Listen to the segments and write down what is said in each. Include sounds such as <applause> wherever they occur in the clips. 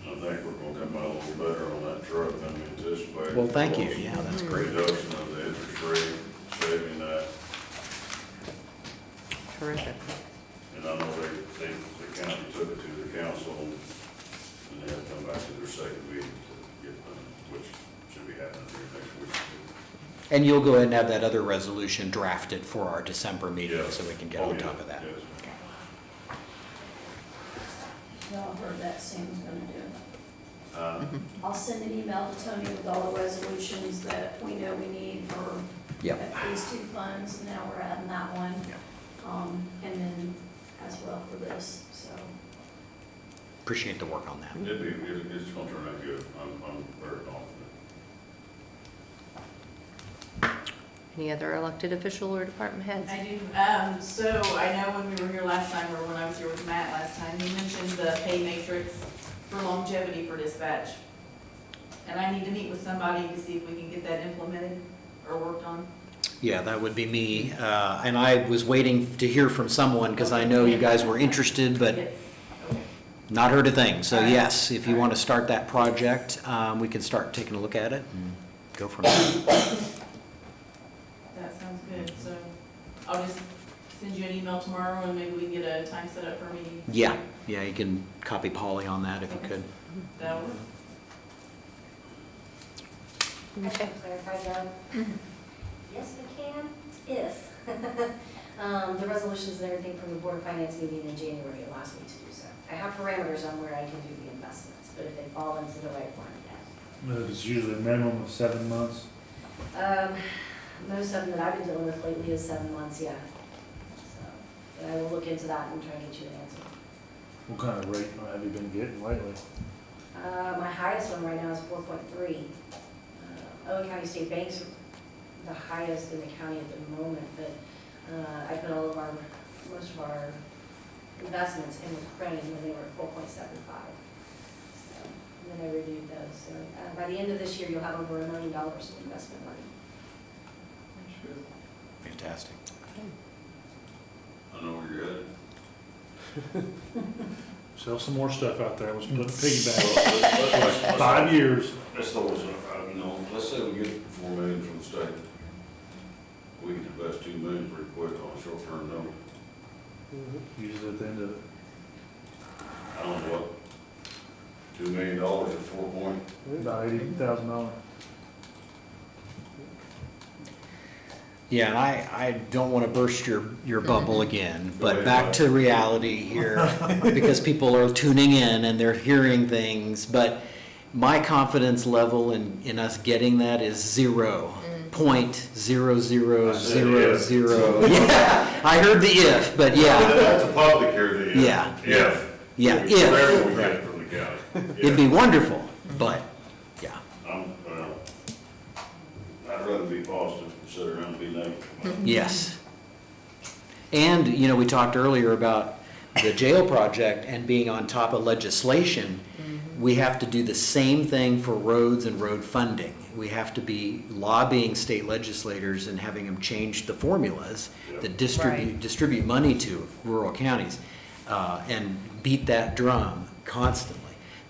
think we're gonna come out a little better on that truck than we anticipated. Well, thank you. Yeah, that's great. Reduction of the interest rate, saving that, Terrific. and I know they, they, the county took it to the council, and they have to come back to their second meeting to get them, which should be happening here next week. And you'll go ahead and have that other resolution drafted for our December meeting, Yeah. so we can get Oh, on yeah, top of that. yes. Y'all heard that Sam's gonna do. Uh, I'll send an email to Tony with all the resolutions that we know we need for Yep. these two funds, and now we're adding that one. Yep. Um, and then as well for this, so. Appreciate the work on that. It'd be, it's- it's gonna turn out good, I'm, I'm very confident. Any other elected official or department heads? I do, um, so I know when we were here last time, or when I was here with Matt last time, he mentioned the pay matrix for longevity for dispatch. And I need to meet with somebody to see if we can get that implemented or worked on. Yeah, that would be me. Uh, And I was waiting to hear from someone because I know you guys were interested, but Yes, okay. not heard a thing. So All right. yes, if you All right. want to start that project, um, we can start taking a look at it and go from <coughs> there. That sounds good, so I'll just send you an email tomorrow and maybe we can get a time set up for a meeting. Yeah, yeah, you can copy Polly on that if you could. That'll work. Okay. Clarify, Doug? Yes, we can, if. <laughs> Um, The resolutions and everything from the Board of Finance meeting in January allows me to do so. I have parameters on where I can do the investments, but if they fall into the right one, yes. It's usually a minimum of seven months. Um, Most of them that I've been dealing with lately is seven months, yeah. So, But I will look into that and try to get you an answer. What kind of rate have you been getting lately? Uh, My highest one right now is 4.3. Uh, Owen County State Bank's the highest in the county at the moment, but uh, I put all of our, most of our investments in with Cronin when they were at 4.75. So, And then I reviewed those, so uh, by the end of this year, you'll have over a million dollars in investment money. Fantastic. I know where you're headed. Sell some more stuff out there, let's put a <laughs> piggy Well, let's- let's- bank. let's- Five years. Let's throw this up, I don't know, let's say we get four million from the state. We can invest two million pretty quick on a short-term note. Usually at the end of it. I don't know what, two million dollars at four point, About eighty thousand dollars. Yeah, and I, I don't want to burst your, your bubble again, but ahead, back Bob. to <laughs> reality here, because people are tuning in and they're hearing things, but my confidence level in, in us getting that is zero. Point zero zero I said zero if. zero. <laughs> Yeah, I heard the if, but yeah, that's a public here, the. uh, Yeah. Yeah. yeah, Whatever we if. get from the county. <laughs> It'd be wonderful, but, yeah. I'm, well, I'd rather be positive than sit around and be negative. Yes. And, you know, we talked earlier about the jail project and being on top of legislation. We have to do the same thing for roads and road funding. We have to be lobbying state legislators and having them change the formulas that distribute, Right. distribute money to rural counties uh, and beat that drum constantly.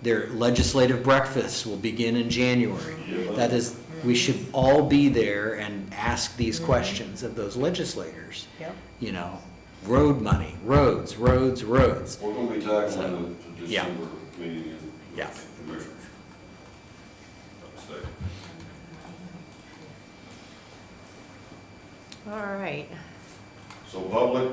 Their legislative breakfasts will begin in January. Yeah. That is, we should all be there and ask these questions of those legislators. Yep. You know, road money, roads, roads, roads. We're gonna be tackling the the Yeah. December meeting and Yeah. commissioners. Second. All right. So public,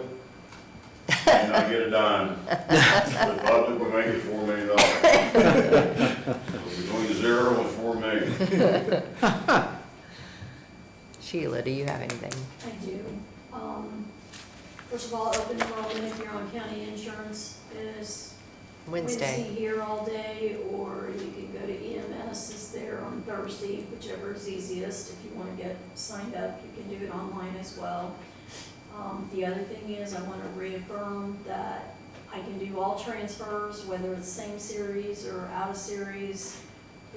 may not get a dime. The public will make it four million dollars. So Between zero and four million. Sheila, do you have anything? I do. Um, first of all, open enrollment if you're on county insurance is Wednesday Wednesday. here all day, or you can go to EMS is there on Thursday, whichever is easiest. If you want to get signed up, you can do it online as well. Um, the other thing is, I want to reaffirm that I can do all transfers, whether it's same series or out of series,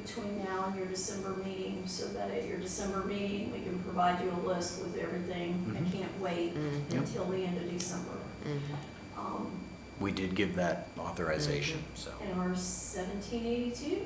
between now and your December meeting, so that at your December meeting, we can provide you a list with everything. I can't wait Mhm. Yep. until the end of December. Mhm. Um, we did give that authorization, so. And our seventeen eighty-two